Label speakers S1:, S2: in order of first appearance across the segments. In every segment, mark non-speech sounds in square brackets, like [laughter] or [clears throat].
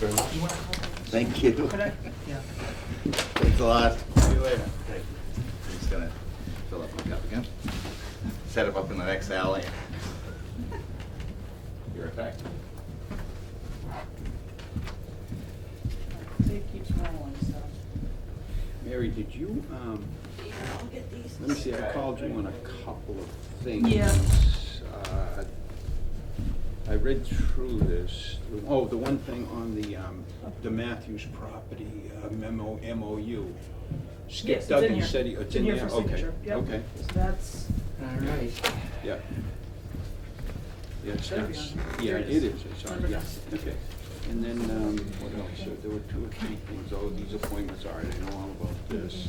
S1: very much.
S2: You want to call?
S3: Thank you.
S2: Could I? Yeah.
S3: Thanks a lot.
S1: See you later. Thank you.
S3: I'm just gonna fill up my cup again. Set him up in the next alley. You're back.
S2: See, it keeps rolling, so.
S4: Mary, did you, um,
S5: I'll get these.
S4: let me see, I called you on a couple of things.
S2: Yeah.
S4: Uh, I read through this, oh, the one thing on the, um, the Matthews property uh, memo, MOU. Skip
S2: Yes, it's in
S4: Duggan
S2: here.
S4: said, he- it's in there, okay,
S2: for signature, yep.
S4: okay,
S2: So that's,
S1: All right.
S4: yeah. Yeah, it's,
S2: Should be
S4: it's-
S2: on
S4: yeah,
S2: here. There
S4: it
S2: it
S4: is,
S2: is.
S4: it's on,
S2: Number
S4: yeah,
S2: nine.
S4: okay. And then, um, what else, Uh, there were two or three things, oh, these appointments, all right, I know all about this.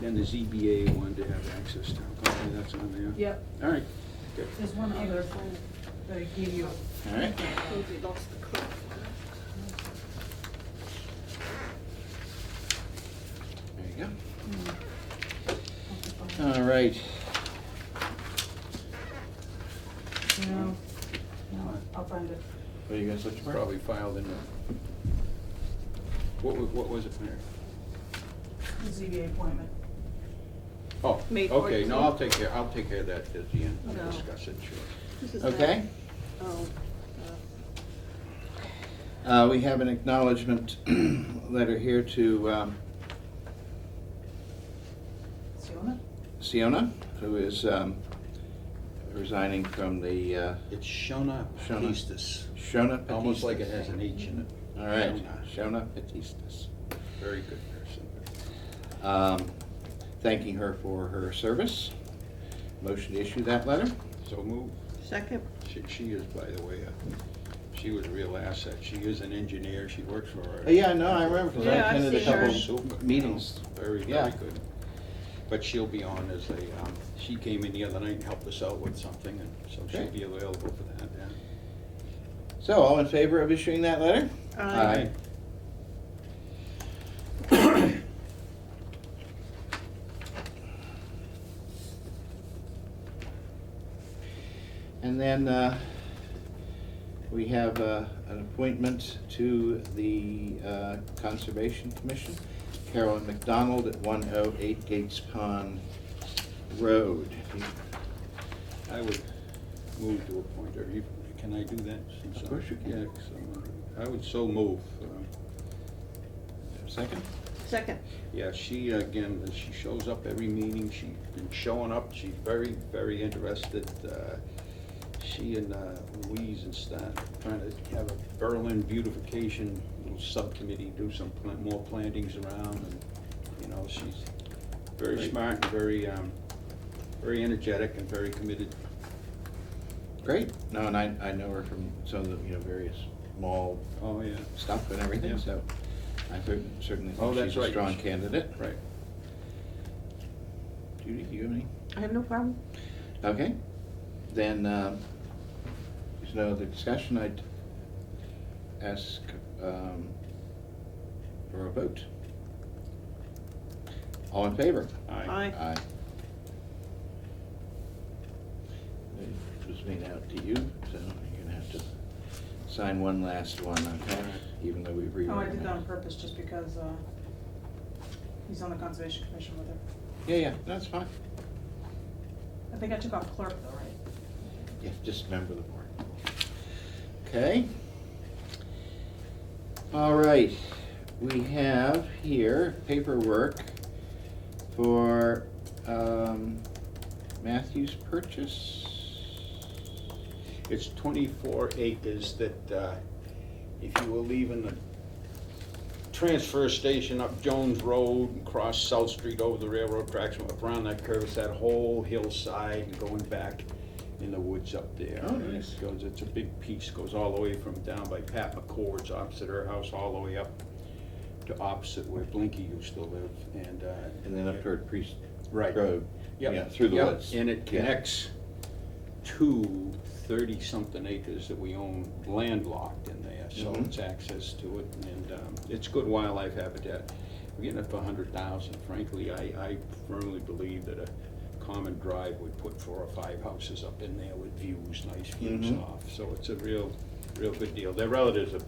S4: Then the ZBA wanted to have access to, okay, that's on there.
S2: yep,
S4: All right, good.
S2: there's one other that I gave you.
S3: All right.
S5: We lost the clip.
S3: There you go. All right.
S2: No, no, I'll find it.
S1: Are you guys looking for?
S4: Probably filed in the, what, wa- what was it, Mary?
S2: The ZBA appointment.
S4: Oh,
S5: May
S4: okay, no, I'll
S5: 14th.
S4: take care, I'll take care of that at the end,
S5: No.
S4: we'll discuss it, sure.
S5: This is
S3: Okay.
S5: that- Oh, uh,
S3: Uh, We have an acknowledgement [clears throat] letter here to um,
S2: See you on it?
S3: Siona, who is um, resigning from the uh,
S4: It's Shona
S3: Shona.
S4: Pistis,
S3: Shona Batistas.
S4: almost like it has an H in it,
S3: All right,
S4: Shona.
S3: Shona Batistas.
S4: very good person.
S3: Um, Thanking her for her service. Motion to issue that letter.
S4: So move.
S5: Second,
S4: She, she is, by the way, a- she was a real asset. She is an engineer. She works for our.
S3: Uh, Yeah, no, I remember, 'cause I
S5: Yeah, I've
S3: attended a
S5: seen her.
S3: couple
S4: Super,
S3: meetings.
S4: Very,
S3: Yeah.
S4: very good. But she'll be on as a, um, she came in the other night and helped us out with something, and so she'll
S3: Okay.
S4: be available for that, yeah.
S3: So, all in favor of issuing that letter?
S5: Aye.
S3: Aye. And then uh, we have uh, an appointment to the uh, Conservation Commission, Carolyn McDonald at 108 Gates Pond Road.
S4: I would move to appoint her. You- Can I do that? since
S3: Of
S4: I'm-
S3: course you can.
S4: yeah, 'cause I'm, uh, I would so move. um,
S3: Second?
S5: second.
S4: Yeah, she, again, she shows up every meeting, she's been showing up, she's very, very interested. uh, She and uh, Louise and Stan trying to have a Berlin beautification little subcommittee, do some plant- more plantings around, and, you know, she's very
S3: Great.
S4: smart, and very, um, very energetic and very committed.
S3: Great. No, and I, I know her from some of the, you know, various mall
S4: Oh, yeah.
S3: stuff and everything,
S4: Yeah.
S3: so I cer- certainly
S4: Oh,
S3: think
S4: that's
S3: she's a
S4: right.
S3: strong candidate.
S4: Right.
S3: Judy, do you have any?
S5: I have no problem.
S3: Okay, then, um, there's no other discussion, I'd ask, um, for a vote. All in favor?
S5: Aye.
S3: Aye. It was made out to you, so you're gonna have to sign one last one, okay, even though we've rewritten
S2: Oh, I did that
S3: it.
S2: on purpose, just because, uh, he's on the Conservation Commission with her.
S3: Yeah, yeah, that's fine.
S2: I think I took off clerk though, right?
S3: Yeah, just remember the board. Okay. All right, we have here paperwork for um, Matthews Purchase.
S4: It's twenty-four acres that, uh, if you were leaving the transfer station up Jones Road and cross South Street over the railroad tracks, up around that curve, it's that whole hillside and going back in the woods up there.
S3: Oh,
S4: And it
S3: nice.
S4: Goes, it's a big piece, goes all the way from down by Pat McCord's opposite her house, all the way up to opposite where Blinky used to live, and, uh.
S3: And then up toward Priest
S4: Right.
S3: Road.
S4: Yep,
S3: Yeah, through the
S4: yep,
S3: woods.
S4: And it
S3: Yeah.
S4: connects to thirty-something acres that we own landlocked in there, so
S3: Mhm.
S4: it's access to it, and um, it's good wildlife habitat. We're getting up to a hundred thousand, frankly, I, I firmly believe that a common drive would put four or five houses up in there with views, nice views
S3: Mhm.
S4: off, so it's a real, real good deal. Their relatives are